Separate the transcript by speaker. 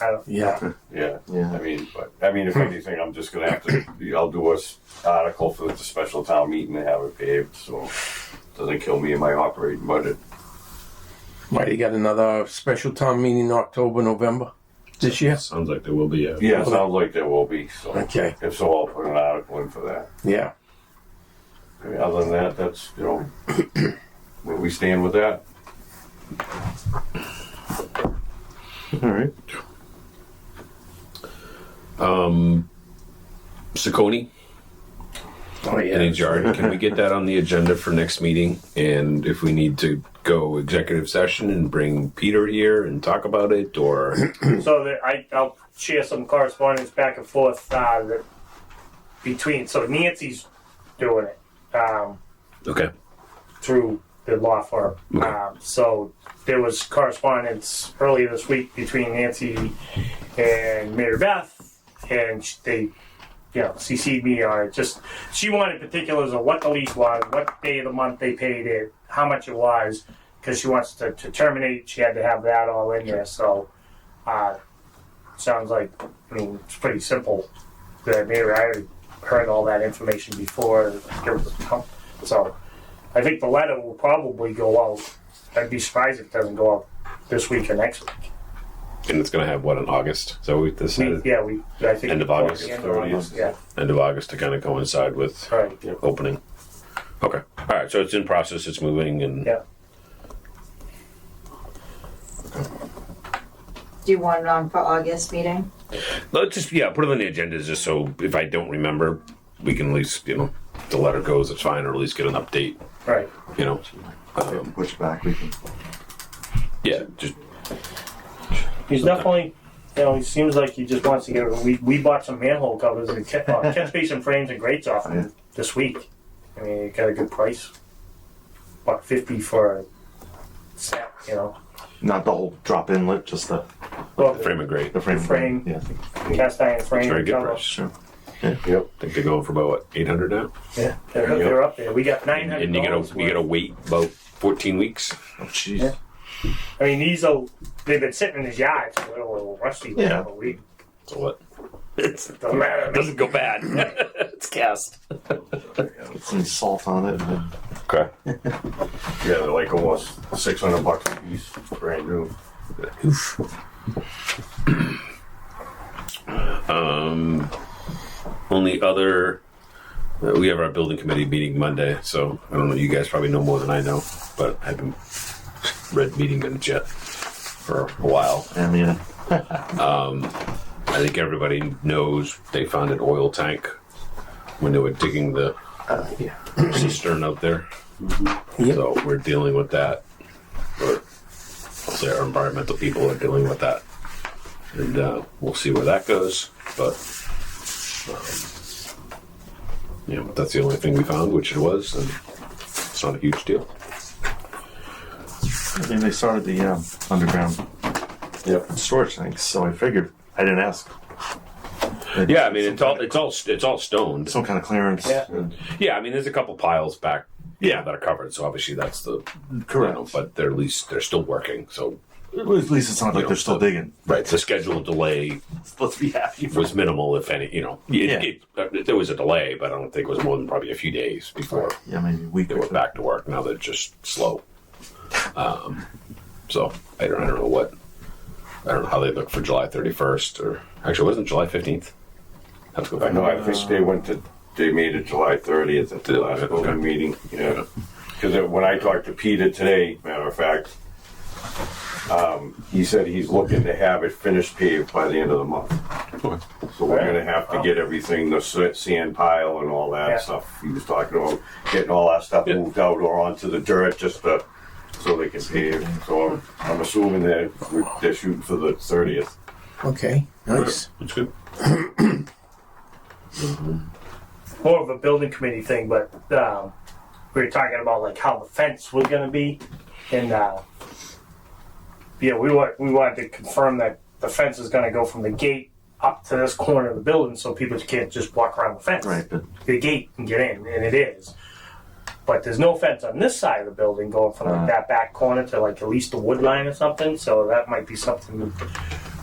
Speaker 1: I don't, Hmm.
Speaker 2: Yeah.
Speaker 3: Yeah.
Speaker 2: Yeah.
Speaker 3: I mean, but, I mean, if anything, I'm just gonna have to, I'll do a s- article for the special town meeting and have it paved, so it doesn't kill me in my operating budget.
Speaker 2: Might you got another special town meeting in October, November this year?
Speaker 4: Sounds like there will be a.
Speaker 3: Yeah, it sounds like there will be, so.
Speaker 2: Okay.
Speaker 3: If so, I'll put an article in for that.
Speaker 2: Yeah.
Speaker 3: I mean, Other than that, that's, you know, where we stand with that.
Speaker 4: All right. Um, Siccone,
Speaker 2: Oh,
Speaker 4: any
Speaker 2: yeah.
Speaker 4: yard. Can we get that on the agenda for next meeting? And if we need to go executive session and bring Peter here and talk about it, or
Speaker 1: so that I, I'll share some correspondence back and forth uh, that between. So Nancy's doing it um,
Speaker 4: okay,
Speaker 1: through the law firm.
Speaker 4: Okay.
Speaker 1: Um, so there was correspondence earlier this week between Nancy and Mary Beth, and sh- they, you know, CC'd me on it. Just she wanted particulars of what the lease was, what day of the month they paid it, how much it was, because she wants to, to terminate. She had to have that all in there. So. Uh, sounds like, I mean, it's pretty simple. That maybe I already heard all that information before. it was come. So I think the letter will probably go out. I'd be surprised if it doesn't go out this week or next week.
Speaker 4: and it's gonna have what in August. So we decided
Speaker 1: We, yeah, we, I think.
Speaker 4: End of August,
Speaker 1: End of August, Yeah,
Speaker 4: end of August to kind of coincide with
Speaker 1: right.
Speaker 4: opening. Okay, all right. So it's in process. It's moving, and
Speaker 1: Yeah.
Speaker 5: Do you want it on for August meeting?
Speaker 4: Let's just yeah, put it on the agenda just so if I don't remember, we can at least you know the letter goes. It's fine, or at least get an update.
Speaker 1: Right.
Speaker 4: You know,
Speaker 2: Um, Push back. We can.
Speaker 4: yeah, just
Speaker 1: He's definitely, you know, he seems like he just wants to get. We, we bought some manhole covers and catch, uh, catch basin frames and grates off him this week. I mean, it got a good price. Buck fifty for a set, you know.
Speaker 6: Not the whole drop inlet, just the,
Speaker 1: Well,
Speaker 4: the frame of grade.
Speaker 6: the frame.
Speaker 1: The frame.
Speaker 6: Yeah.
Speaker 1: cast iron frame.
Speaker 4: Very good
Speaker 1: cover.
Speaker 4: price.
Speaker 6: Sure.
Speaker 4: I think they're going for about what, eight hundred now,
Speaker 1: Yeah, they're, they're up there. We got nine hundred.
Speaker 4: and you gotta you gotta wait about fourteen weeks.
Speaker 6: Oh, jeez.
Speaker 1: Yeah. I mean, these are they've been sitting in his yard, so they're a little rusty.
Speaker 6: Yeah.
Speaker 1: but we
Speaker 4: So what?
Speaker 1: doesn't matter.
Speaker 4: It doesn't go bad. it's cast.
Speaker 6: Put some salt on it. And then
Speaker 4: Okay.
Speaker 3: Yeah, they're like almost six hundred bucks a piece, brand new.
Speaker 4: Um, Only other. uh, We have our building committee meeting Monday, so I don't know. You guys probably know more than I know, but I haven't read meeting minutes yet for a while.
Speaker 6: and yeah.
Speaker 4: I think everybody knows they found an oil tank when they were digging the cistern out there.
Speaker 2: Yep.
Speaker 4: So we're dealing with that. Or I'll say our environmental people are dealing with that. And uh, we'll see where that goes. But um, yeah, but that's the only thing we found, which it was, and it's not a huge deal.
Speaker 6: I mean, they started the um, underground
Speaker 3: Yep.
Speaker 6: storage thing, so I figured. I didn't ask.
Speaker 4: Yeah, I mean it's all it's all it's all stoned.
Speaker 6: Some kind of clearance.
Speaker 1: Yeah.
Speaker 6: and-
Speaker 4: Yeah, I mean there's a couple piles back.
Speaker 6: Yeah.
Speaker 4: that are covered. So obviously that's the
Speaker 6: Correct.
Speaker 4: know, but they're at least they're still working. So
Speaker 6: At least it's not like they're still digging.
Speaker 4: right, the scheduled delay
Speaker 6: Let's be happy. For
Speaker 4: was minimal, if any. You know, it,
Speaker 6: Yeah.
Speaker 4: it- uh, there was a delay, but I don't think it was more than probably a few days before
Speaker 6: yeah, maybe a week
Speaker 4: they
Speaker 6: or
Speaker 4: were
Speaker 6: two.
Speaker 4: back to work. Now they're just slow. Um, so I don't, I don't know what I don't know how they look for July thirty first or actually wasn't it July fifteenth. Let's go
Speaker 3: I
Speaker 4: back.
Speaker 3: know, I think they went to, they made it July thirtieth at the last
Speaker 4: Okay.
Speaker 3: open meeting, yeah. Because when I talked to Peter today, matter of fact, um, he said he's looking to have it finished paved by the end of the month. So we're gonna have to get everything, the sa- sand pile and all
Speaker 1: Yeah.
Speaker 3: that stuff. He was talking about getting all that stuff
Speaker 4: Yeah.
Speaker 3: moved out or onto the dirt just to, so they can pave. So I'm, I'm assuming that they're shooting for the thirtieth.
Speaker 2: Okay. Nice.
Speaker 4: It's good.
Speaker 1: More of a building committee thing, but um, we were talking about like how the fence was going to be, and uh, yeah, we want we wanted to confirm that the fence is going to go from the gate up to this corner of the building, so people can't just walk around the fence.
Speaker 6: Right, but
Speaker 1: the gate and get in, and it is. But there's no fence on this side of the building going from like
Speaker 6: Uh.
Speaker 1: that back corner to like at least the wood line or something. So that might be something